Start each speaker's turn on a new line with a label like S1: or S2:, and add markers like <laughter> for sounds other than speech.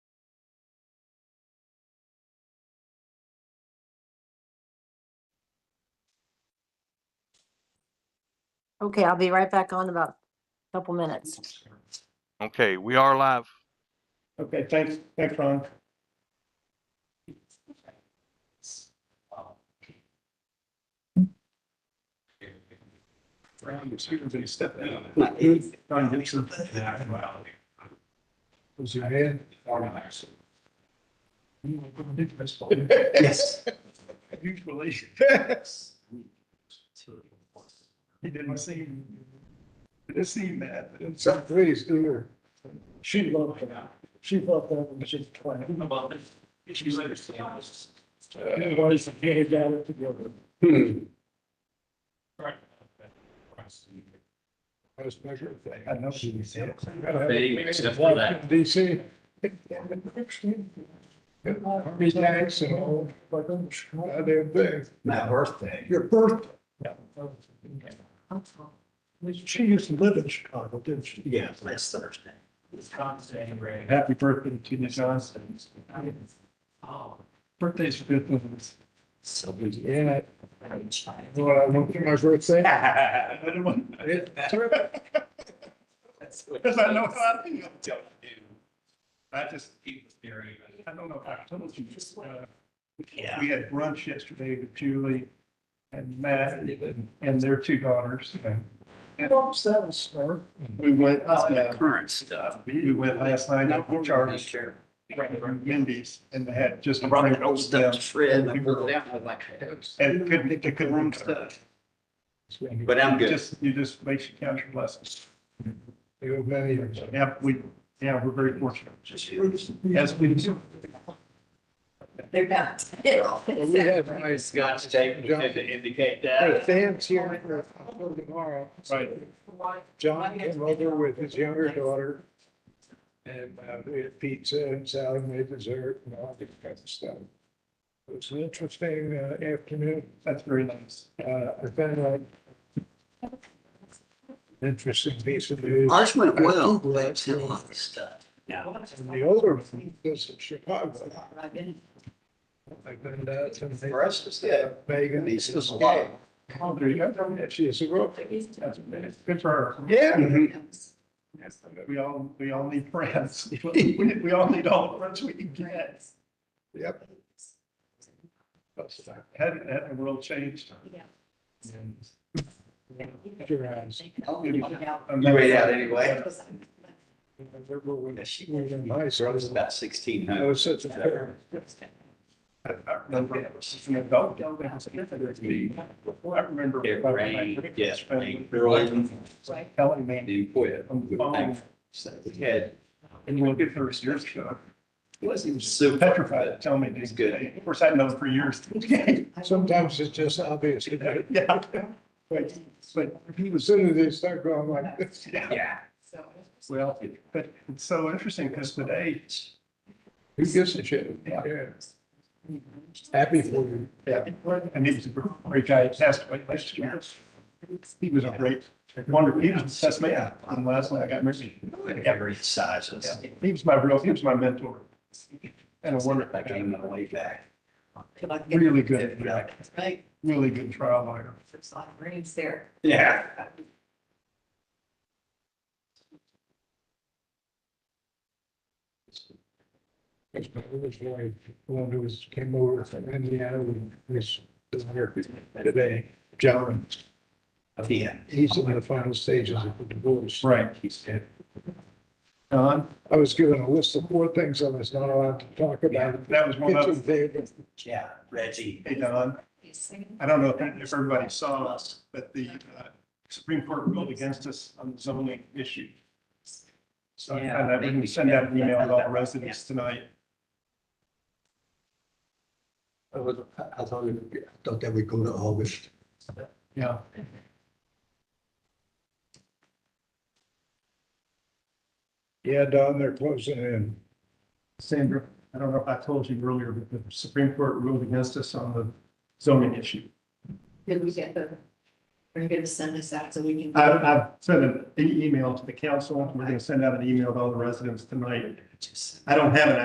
S1: Okay, I'll be right back on in about a couple minutes.
S2: Okay, we are live.
S3: Okay, thanks, thanks, Ron. Ron, your speaker's gonna step down. Ron Gibson. Was your hand? <laughs> Yes. Usually. Yes. He didn't seem, didn't seem mad. Some please do her. She loved that. She loved that when she was twenty. About it. She's like. Everybody's came down together. Right. I was measured. I know she was.
S4: They accept for that.
S3: DC. Army tanks and all. They're big.
S4: My birthday.
S3: Your birthday. She used to live in Chicago, didn't she?
S4: Yeah, last Thursday.
S3: Happy birthday to the Johnsons. Birthdays are good ones.
S4: So we.
S3: Yeah. Well, I won't get my birthday. <laughs> I didn't want- I didn't- <laughs> Because I know how I feel. I just keep the theory. but I don't know if I told you. uh,
S4: Yeah.
S3: We had brunch yesterday with Julie and Matt and their two daughters. Oops, that was smart. We went, uh,
S4: Current stuff.
S3: we went last night up to Charlie's. Wendy's and they had just.
S4: Running those
S3: Yeah.
S4: stuff, shred, I pulled it out with my hands.
S3: And couldn't, they couldn't run stuff.
S4: But I'm good.
S3: Just, you just makes you count your blessings.
S5: You many years.
S3: Yeah, we, yeah, we're very fortunate.
S4: Just you.
S3: Yes, we do.
S1: They're not.
S5: We have nice
S4: Scotch tape to indicate that.
S5: fans here for for tomorrow.
S3: Right.
S5: John came over with his younger daughter. And uh, we had pizza and salad and dessert and all that kind of stuff. It was an interesting uh, afternoon.
S3: That's very nice.
S5: Uh, I found out
S3: uh,
S5: an interesting piece of news.
S4: Ours went well,
S5: Googled
S4: but
S5: it.
S4: it's a lot of stuff.
S5: The older one was in Chicago. I've been
S3: uh,
S5: down to
S4: us, it's good.
S5: Megan.
S4: This is a lot.
S3: Oh, there you go.
S5: She's a girl.
S3: That's good for her.
S5: Yeah.
S4: Mm-hmm.
S3: We all, we all need friends. <laughs> We, we all need all the friends we can get.
S5: Yep.
S3: Hadn't, hadn't uh, the world changed?
S5: Your eyes.
S4: You made out anyway.
S5: I Remember when
S4: Yeah, she-
S5: we were in high
S4: It
S5: school?
S4: was about sixteen
S5: I
S4: hundred.
S5: was such a fair.
S3: I I remember, she's an adult, I was a kid,
S4: It
S3: I remember.
S4: rained, yes, rained early
S3: Telling
S4: and
S3: me.
S4: then quit.
S3: on the
S4: Oh.
S3: phone,
S4: So we had,
S3: And you will get first years ago.
S4: it wasn't even super.
S3: Petrified, tell me.
S4: It's good.
S3: Of course, I know for years.
S5: Sometimes it's just obvious. you know?
S3: Yeah. But,
S1: So.
S3: but
S5: As soon as they start going like this.
S3: yeah,
S4: Yeah.
S3: well, but it's so interesting because today,
S5: Who gives a shit?
S3: Yeah.
S5: Happy for you.
S3: yeah, and he was a great guy, he passed away last year. He was a great, wonderful, he was the best man. And last night I got married.
S4: Every sizes.
S3: Yeah, He was my real, he was my mentor. And a wonderful,
S4: I came on the way back.
S3: really good, really good trial lawyer.
S1: There's a lot of brains there.
S4: Yeah.
S5: His wife, one who was, came over from Indiana, and was here today, John.
S4: Yeah.
S5: He's in the final stages of the divorce.
S3: Right.
S5: He's dead.
S3: Don,
S5: I was given a list of four things I was not allowed to talk about.
S3: that was one
S5: It's a
S3: of,
S5: big-
S4: Yeah, Reggie.
S3: hey, Don, I don't know if if everybody saw us, but the uh, Supreme Court ruled against us on the zoning issue. So and
S4: Yeah,
S3: I
S4: they-
S3: didn't send out an email to all residents tonight.
S6: I was, I- I thought, it- I thought that would go to August.
S3: Yeah.
S5: Yeah, Don, they're closing in.
S3: Sandra, I don't know if I told you earlier, but the Supreme Court ruled against us on the zoning issue.
S1: Did we get the, are you gonna send us out so we can?
S3: I, I've sent an e- email to the council. We're going to send out an email to all the residents tonight. I don't have an